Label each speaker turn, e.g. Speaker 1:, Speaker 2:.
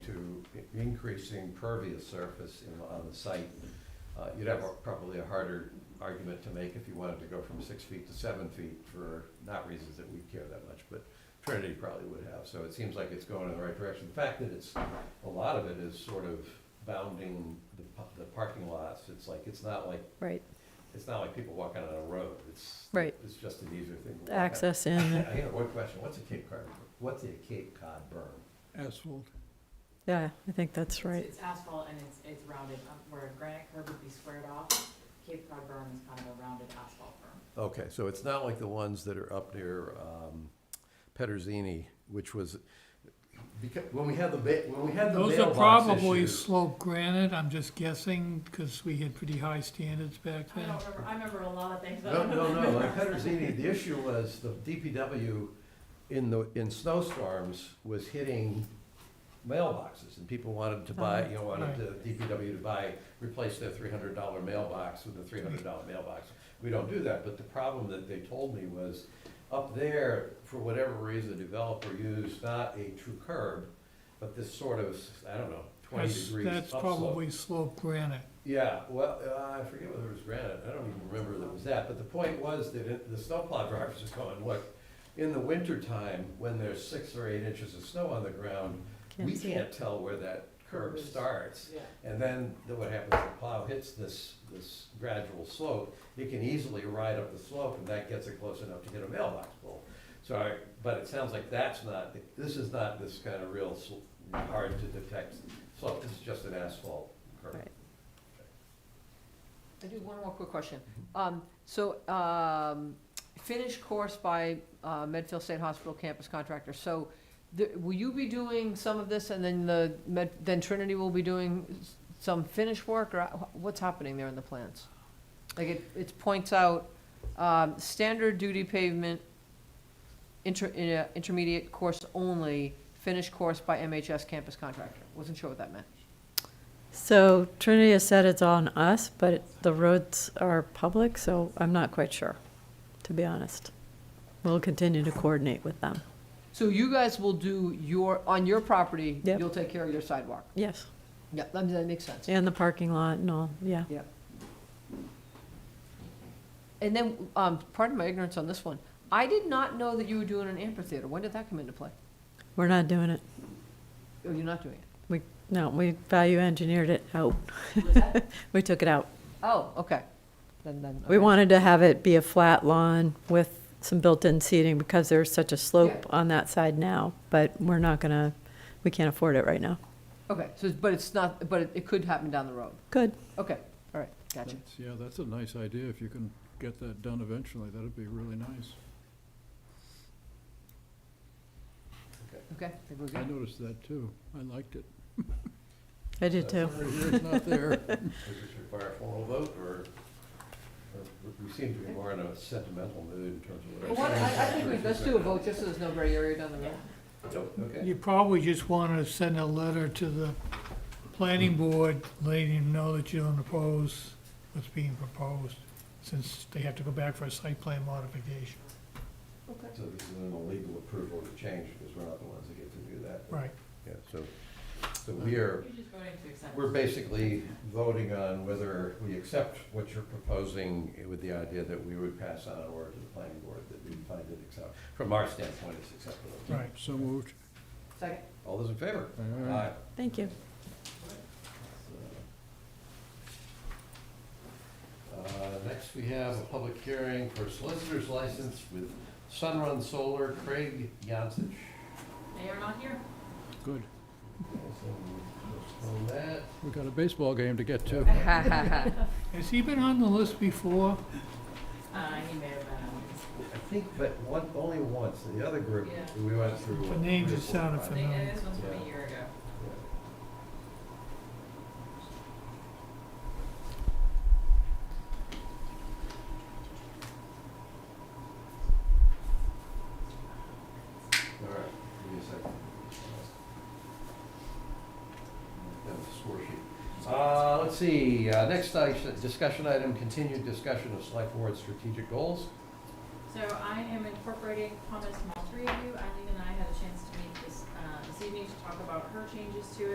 Speaker 1: increasing pervious surface in- on the site, uh, you'd have a- probably a harder argument to make if you wanted to go from six feet to seven feet for not reasons that we care that much, but Trinity probably would have. So it seems like it's going in the right direction. The fact that it's, a lot of it is sort of bounding the, pa- the parking lots. It's like, it's not like,
Speaker 2: right,
Speaker 1: it's not like people walking on a road. It's,
Speaker 2: Right.
Speaker 1: it's just an easier thing. to walk on.
Speaker 2: access in,
Speaker 1: I have one question. What's a Cape Cod, what's a Cape Cod berm?
Speaker 3: asphalt.
Speaker 2: yeah, I think that's right.
Speaker 4: It's asphalt and it's, it's rounded, um, where a granite curb would be squared off, Cape Cod berm is kind of a rounded asphalt berm.
Speaker 1: Okay, so it's not like the ones that are up near um, Pederzini, which was, because, when we had the, ba- when we had the
Speaker 3: Those are
Speaker 1: mailbox
Speaker 3: probably
Speaker 1: issue-
Speaker 3: slope granite, I'm just guessing, because we had pretty high standards back
Speaker 4: I
Speaker 3: then.
Speaker 4: don't remember, I remember a lot of things. but I
Speaker 1: No,
Speaker 4: don't
Speaker 1: no, no,
Speaker 4: remember
Speaker 1: like
Speaker 4: the rest.
Speaker 1: Pederzini, the issue was the DPW in the, in snowstorms was hitting mailboxes and people wanted to
Speaker 3: Uh-huh.
Speaker 1: buy, you know, wanted the DPW to buy, replace their three hundred dollar mailbox with a three hundred dollar mailbox. We don't do that, but the problem that they told me was up there, for whatever reason, the developer used not a true curb, but this sort of, I don't know, twenty
Speaker 3: That's,
Speaker 1: degrees
Speaker 3: that's
Speaker 1: upslope.
Speaker 3: probably slope granite.
Speaker 1: Yeah, well, uh, I forget whether it was granite, I don't even remember that it was that, but the point was that it- the snowplow drivers are going, look, in the wintertime, when there's six or eight inches of snow on the ground, we
Speaker 2: see it.
Speaker 1: can't tell where that curb starts.
Speaker 4: Yeah.
Speaker 1: And then the- what happens, the plow hits this, this gradual slope, it can easily ride up the slope, and that gets it close enough to hit a mailbox pole. So, I- but it sounds like that's not, this is not this kind of real sl- hard to detect slope, this is just an asphalt curb.
Speaker 2: Right.
Speaker 5: I do have one more quick question. Um, so, um, finished course by, uh, Medfield State Hospital Campus Contractor. So, th- will you be doing some of this and then the Med, then Trinity will be doing s- some finished work or wh- what's happening there in the plans? Like it, it points out, um, standard duty pavement, inter, in a- intermediate course only, finished course by MHS Campus Contractor. Wasn't sure what that meant.
Speaker 2: So Trinity has said it's on us, but it- the roads are public, so I'm not quite sure, to be honest. We'll continue to coordinate with them.
Speaker 5: So you guys will do your, on your property,
Speaker 2: Yep.
Speaker 5: you'll take care of your sidewalk?
Speaker 2: Yes,
Speaker 5: Yeah, that, that makes sense.
Speaker 2: and the parking lot and all, yeah.
Speaker 5: And then, um, pardon my ignorance on this one, I did not know that you were doing an amphitheater. When did that come into play?
Speaker 2: We're not doing it.
Speaker 5: Oh, you're not doing it?
Speaker 2: We, no, we value engineered it out.
Speaker 4: Was that-
Speaker 2: We took it out.
Speaker 5: Oh, okay. Then, then.
Speaker 2: We
Speaker 5: okay.
Speaker 2: wanted to have it be a flat lawn with some built-in seating because there's such a slope on that side now, but we're not gonna, we can't afford it right now.
Speaker 5: Okay, so, it's- but it's not, but it, it could happen down the road.
Speaker 2: Good,
Speaker 5: Okay, all right, gotcha.
Speaker 6: That's- Yeah, that's a nice idea. If you can get that done eventually, that'd be really nice.
Speaker 5: Okay, I think we're
Speaker 6: I
Speaker 5: good.
Speaker 6: noticed that too. I liked it.
Speaker 2: I do too.
Speaker 6: It's not there.
Speaker 1: Does this require a formal vote, or, or we seem to be more in a sentimental mood in terms of
Speaker 5: Well,
Speaker 1: what
Speaker 5: what-
Speaker 1: our
Speaker 5: I, I think we,
Speaker 1: standards
Speaker 5: let's
Speaker 1: are.
Speaker 5: do a vote, just so there's no gray area down the road.
Speaker 1: Nope, Oh, Okay,
Speaker 3: You probably just want to send a letter to the planning board, letting them know that you don't oppose what's being proposed, since they have to go back for a site plan modification.
Speaker 1: so this is an illegal approval to change, because we're not the ones that get to do that.
Speaker 3: Right.
Speaker 1: Yeah, so, so we are,
Speaker 4: You're just voting to accept.
Speaker 1: we're basically voting on whether we accept what you're proposing with the idea that we would pass on or to the planning board, that we find it acceptable. From our standpoint, it's acceptable.
Speaker 3: Right.
Speaker 6: So moved.
Speaker 5: Second?
Speaker 1: All those in favor?
Speaker 6: Aye.
Speaker 2: Thank you.
Speaker 1: Uh, Next, we have a public hearing for solicitor's license with Sunrun Solar, Craig Yancich.
Speaker 4: They are not here.
Speaker 6: Good.
Speaker 1: Postpone that.
Speaker 6: We got a baseball game to get to.
Speaker 5: Ha, ha, ha.
Speaker 3: Has he been on the list before?
Speaker 4: Uh, he may have been, on this.
Speaker 1: I think, but one, only once, the other group,
Speaker 4: Yeah.
Speaker 1: we went through.
Speaker 3: The name
Speaker 1: three or
Speaker 3: just
Speaker 1: four
Speaker 3: sounded
Speaker 1: times.
Speaker 4: I think uh, this one's from a year ago.
Speaker 1: All right, give me a second. That was a score sheet. Uh, let's see, uh, next item, discussion item, continued discussion of select board strategic goals.
Speaker 4: So I am incorporating comments from all three of you. Eileen and I had a chance to meet this, uh, this evening to talk about her changes to it.